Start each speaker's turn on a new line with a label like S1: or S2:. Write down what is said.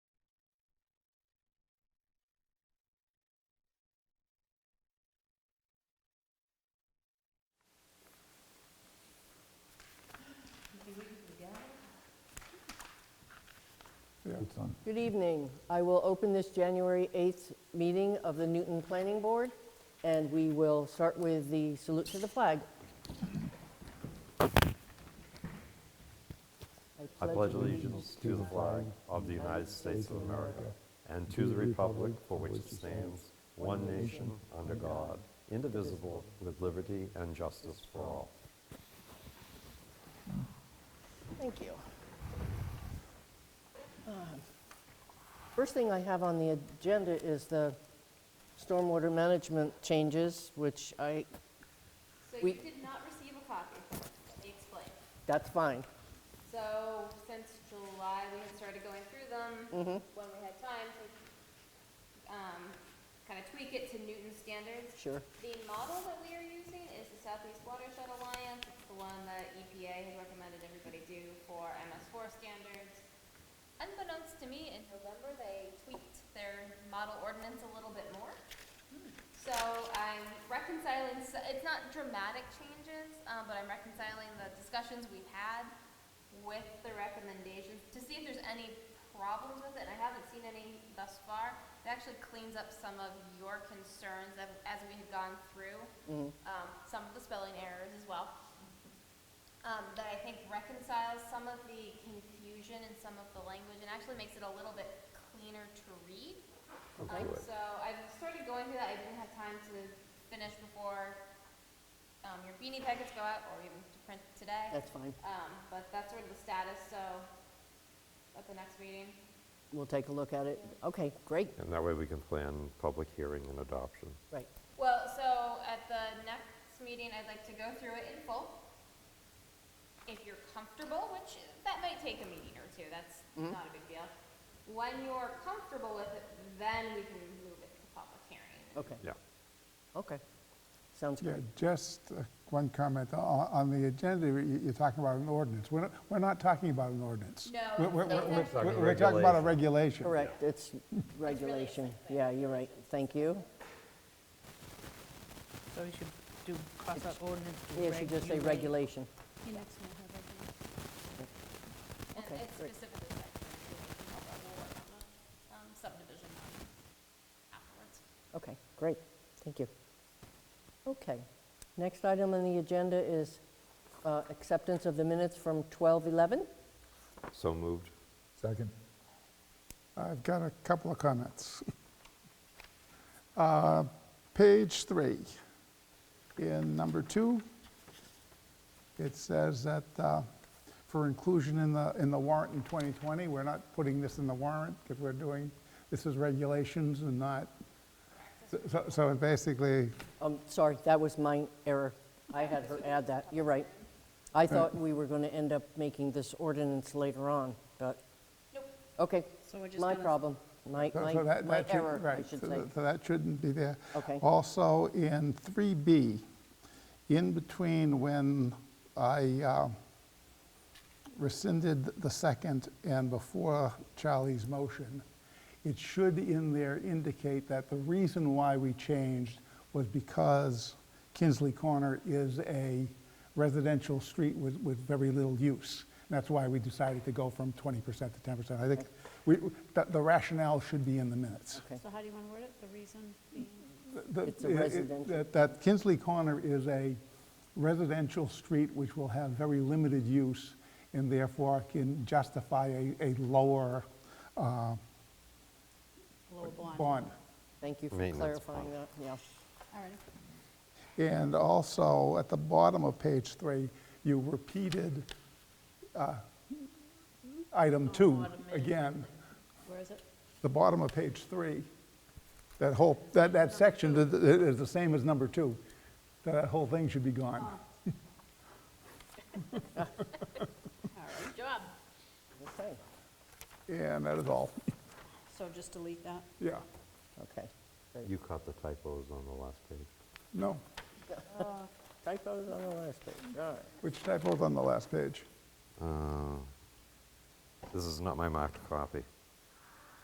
S1: it's on.
S2: Good evening. I will open this January 8th meeting of the Newton Planning Board, and we will start with the salute to the flag.
S3: I pledge allegiance to the flag of the United States of America and to the republic for which it stands, one nation, under God, indivisible, with liberty and justice for all.
S2: Thank you. Um, First thing I have on the agenda is the stormwater management changes, which I,
S4: So
S2: We-
S4: you did not receive a copy, let me explain.
S2: that's fine.
S4: So since July, we had started going through them when we had time to kind of tweak it to Newton standards.
S2: Sure.
S4: The model that we are using is the Southeast Watershed Alliance. It's the one that EPA has recommended everybody do for MS4 standards. Unbeknownst to me, in November, they tweaked their model ordinance a little bit more. So I'm reconciling, s- it's not dramatic changes, uh, but I'm reconciling the discussions we've had with the recommendations to see if there's any problems with it. And I haven't seen any thus far. It actually cleans up some of your concerns of- as we had gone through, um, some of the spelling errors as well. Um, that I think reconciles some of the confusion in some of the language and actually makes it a little bit cleaner to read. Um,
S3: Good.
S4: so I've started going through that. I didn't have time to finish before um, your beanie packets go out or even to print today.
S2: That's fine.
S4: Um, but that's sort of the status, so at the next meeting.
S2: We'll take a look at it. Okay, great,
S3: And that way we can plan public hearing and adoption.
S2: right.
S4: Well, so at the next meeting, I'd like to go through it in full. If you're comfortable, which that might take a meeting or two, that's
S2: Mm-hmm.
S4: not a big deal. When you're comfortable with it, then we can move it to public hearing.
S2: Okay,
S3: Yeah.
S2: okay. Sounds
S5: Yeah,
S2: good.
S5: just uh, one comment. O- On the agenda, you- you're talking about an ordinance. We're not- we're not talking about an ordinance.
S4: No,
S5: We're- we're-
S4: it's
S5: we're-
S4: actually-
S5: We're we're talking about a regulation.
S3: Regulation.
S2: Correct, it's regulation. Yeah, you're right. Thank you.
S6: So we should do, cross out ordinance, do
S2: Yeah, should just say
S6: regulate.
S2: regulation.
S4: And
S2: Okay,
S4: it's
S2: great.
S4: specifically like, we'll work on the um, subdivision um, afterwards.
S2: Okay, great, thank you. Okay, next item on the agenda is uh, acceptance of the minutes from 12:11.
S3: So moved.
S1: Second?
S5: I've got a couple of comments. Uh, Page three, in number two, it says that uh, for inclusion in the, in the warrant in 2020, we're not putting this in the warrant because we're doing, this is regulations and not, so- so- so it basically,
S2: Um, Sorry, that was my error. I had her add that, you're right. I thought we were going to end up making this ordinance later on, but,
S4: Nope.
S2: okay,
S6: So we're just
S2: my
S6: gonna-
S2: problem, my
S5: so
S2: my
S5: so that,
S2: my
S5: that should,
S2: error, I
S5: right,
S2: should
S5: so
S2: say.
S5: that- so that shouldn't be there.
S2: Okay.
S5: Also, in 3B, in between when I uh, rescinded the second and before Charlie's motion, it should in there indicate that the reason why we changed was because Kinsley Corner is a residential street with, with very little use. And that's why we decided to go from 20% to 10%. I think we, the the rationale should be in the minutes.
S2: Okay.
S7: So how do you want to word it? The reason being?
S5: The-
S2: It's a
S5: it- it-
S2: residential.
S5: that- That Kinsley Corner is a residential street which will have very limited use and therefore can justify a, a lower
S7: Lower blind.
S5: bond.
S2: Thank you for
S3: Maintenance
S2: clarifying
S3: bond.
S2: that, yeah.
S7: All right.
S5: And also, at the bottom of page three, you repeated uh, item two again.
S7: Oh, Where is it?
S5: The bottom of page three, that whole, that, that section is- is the same as number two. That whole thing should be gone.
S7: All right.
S4: Job.
S2: Okay,
S5: And that is all.
S7: So just delete that?
S5: Yeah.
S2: okay.
S3: You caught the typos on the last page.
S5: No.
S2: Typos on the last page, all right.
S5: Which typo's on the last page?
S3: Uh, This is not my marked copy.